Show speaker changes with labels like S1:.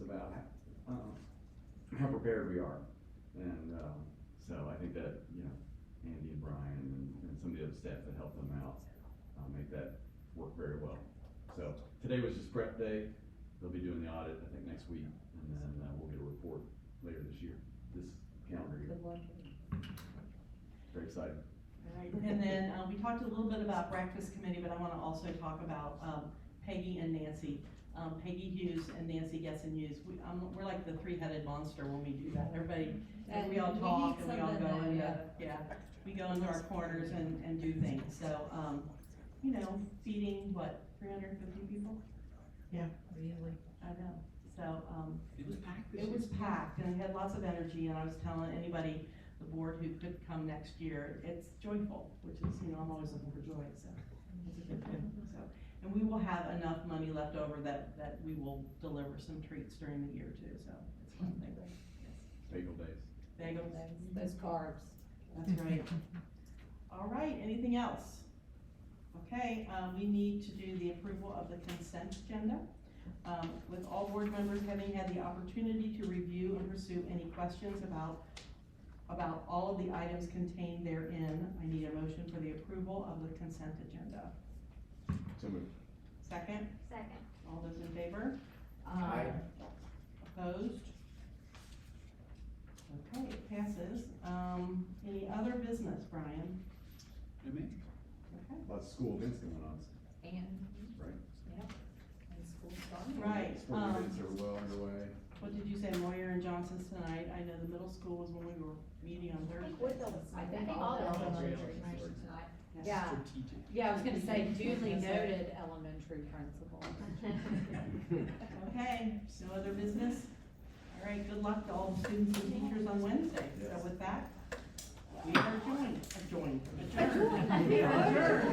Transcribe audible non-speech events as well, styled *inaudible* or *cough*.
S1: about how, uh, how prepared we are. And, um, so I think that, you know, Andy and Brian and, and some of the other staff that helped them out, uh, make that work very well. So today was just prep day. They'll be doing the audit, I think, next week, and then, uh, we'll get a report later this year, this calendar year.
S2: Good luck.
S1: Very excited.
S2: Alright, And then, uh, we talked a little bit about breakfast committee, but I wanna also talk about, um, Peggy and Nancy. Um, Peggy Hughes and Nancy Gessen Hughes, we, um, we're like the three-headed monster when we do that, everybody,
S3: And
S2: we all
S3: we
S2: talk
S3: need
S2: and we all
S3: something
S2: go
S3: that,
S2: into,
S3: yeah.
S2: yeah, we go into our corners and, and do things, so, um, you know, feeding, what, three hundred fifty people?
S3: Really?
S2: I know, so, um,
S4: It was packed this
S2: It
S4: year.
S2: was packed and it had lots of energy and I was telling anybody, the board who could come next year, it's joyful, which is, you know, I'm always looking for joy, so. it's a good thing, so. And we will have enough money left over that, that we will deliver some treats during the year too, so it's one thing.
S1: Bagel days.
S2: Bagels,
S3: Those carbs.
S2: that's right. All right, anything else? Okay, um, we need to do the approval of the consent agenda. Um, with all board members having had the opportunity to review and pursue any questions about, about all of the items contained therein, I need a motion for the approval of the consent agenda.
S1: So moved.
S2: Second,
S5: Second.
S2: all those in favor?
S3: Aye.
S2: Opposed? Okay, it passes. Um, any other business, Brian?
S4: I mean,
S2: Okay.
S1: Lots of school events going on,
S3: And,
S1: right?
S3: and school starting.
S2: Right,
S1: Sport
S2: um,
S1: events are well underway.
S2: what did you say, Moyer and Johnson's tonight? I know the middle school was when we were meeting on Thursday.
S3: I think all the elementary are tonight. Yeah,
S4: strategic.
S3: yeah, I was gonna say duly noted elementary principal. *laughs*
S2: Okay, so other business? All right, good luck to all the students and teachers on Wednesday. So
S1: Yes.
S2: with that, we are joined, adjourned, adjourned.
S3: Adjourned.
S2: We are adjourned.